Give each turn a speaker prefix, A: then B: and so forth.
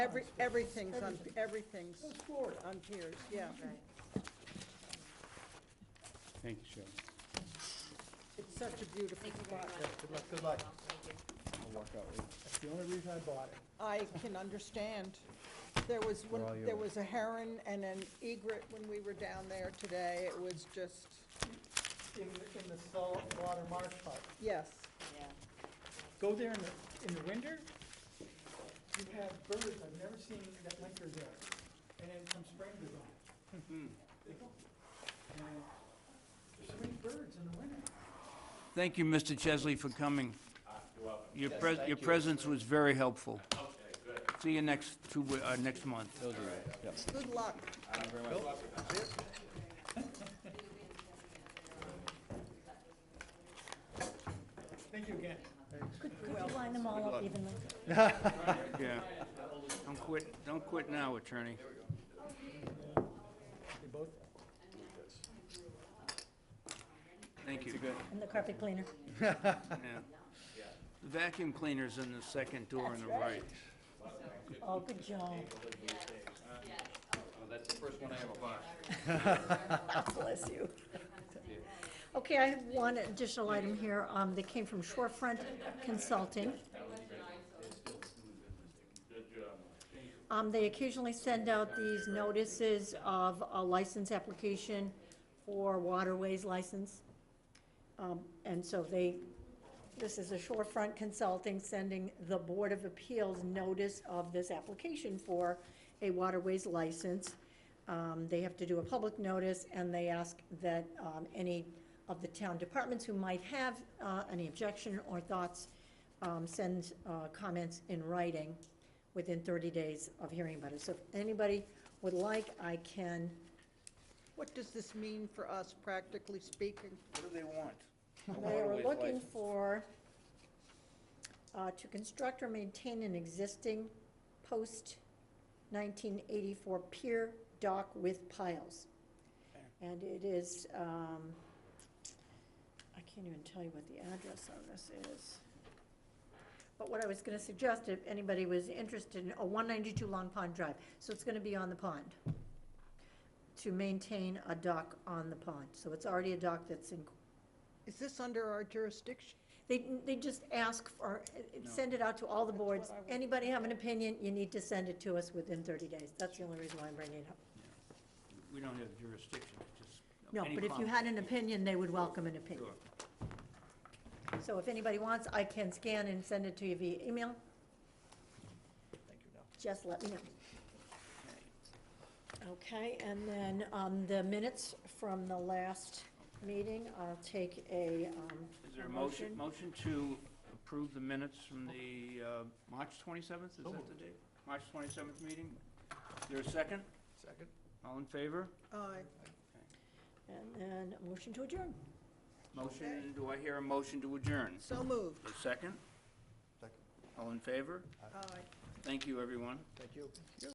A: Every, everything's on, everything's
B: That's Florida.
A: on piers, yeah.
C: Thank you, Shelley.
A: It's such a beautiful spot.
B: Good luck, good luck.
C: I'll walk out with
B: That's the only reason I bought it.
A: I can understand. There was, one-
C: They're all
A: there
C: yours.
A: was a heron and an egret when we were down there today. It was just,
B: In, the- in the saltwater marsh part.
A: yes.
B: Go there in the, in the winter, you have birds I've never seen that winter there. And then come spring, they're gone. Hmm. They go. And There's so many birds in the winter.
D: Thank you, Mr. Chesley, for coming. Your pres, your presence was very helpful. Okay, good. See you next two, we- uh, next month.
A: Good luck.
B: Thank you again.
E: Could you line them all up evenly?
D: Yeah. Don't quit, don't quit now, attorney.
B: They both,
D: Thank you.
E: And the carpet cleaner?
D: Yeah. The Vacuum cleaner's in the second door on the right.
E: Oh, good job. that's the first one I ever bought. Bless you. Okay, I have one additional item here, um, that came from Shorefront Consulting. Um, they occasionally send out these notices of a license application for waterways license. Um, and so they this is a Shorefront Consulting sending the Board of Appeals notice of this application for a waterways license. Um, they have to do a public notice, and they ask that, um, any of the town departments who might have, uh, any objection or thoughts, um, send, uh, comments in writing within thirty days of hearing about it. So if anybody would like, I can,
A: What does this mean for us practically speaking?
D: What do they want?
E: They are looking for, uh, to construct or maintain an existing post nineteen eighty-four pier dock with piles. And it is, um, I can't even tell you what the address on this is. But what I was gonna suggest, if anybody was interested in, oh, one ninety-two Long Pond Drive, so it's gonna be on the pond. To maintain a dock on the pond, so it's already a dock that's in,
A: Is this under our jurisdiction?
E: they, they just ask for, send it out to all the boards. Anybody have an opinion, you need to send it to us within thirty days. That's the only reason why I'm bringing it up.
D: We don't have jurisdiction, just.
E: No,
D: any
E: but if you
D: comment.
E: had an opinion, they would welcome an opinion.
D: Sure.
E: So if anybody wants, I can scan and send it to you via email. Just let me know. Okay, and then, um, the minutes from the last meeting, I'll take a, um,
D: Is there a motion, motion to approve the minutes from the uh, March 27th, is that the date? March 27th meeting? Is there a second?
B: Second.
D: All in favor?
A: Aye.
E: And then a motion to adjourn.
D: Motion, do I hear a motion to adjourn?
A: So moved.
D: A second? Second. All in favor?
A: Aye.
D: Thank you, everyone.
B: Thank you.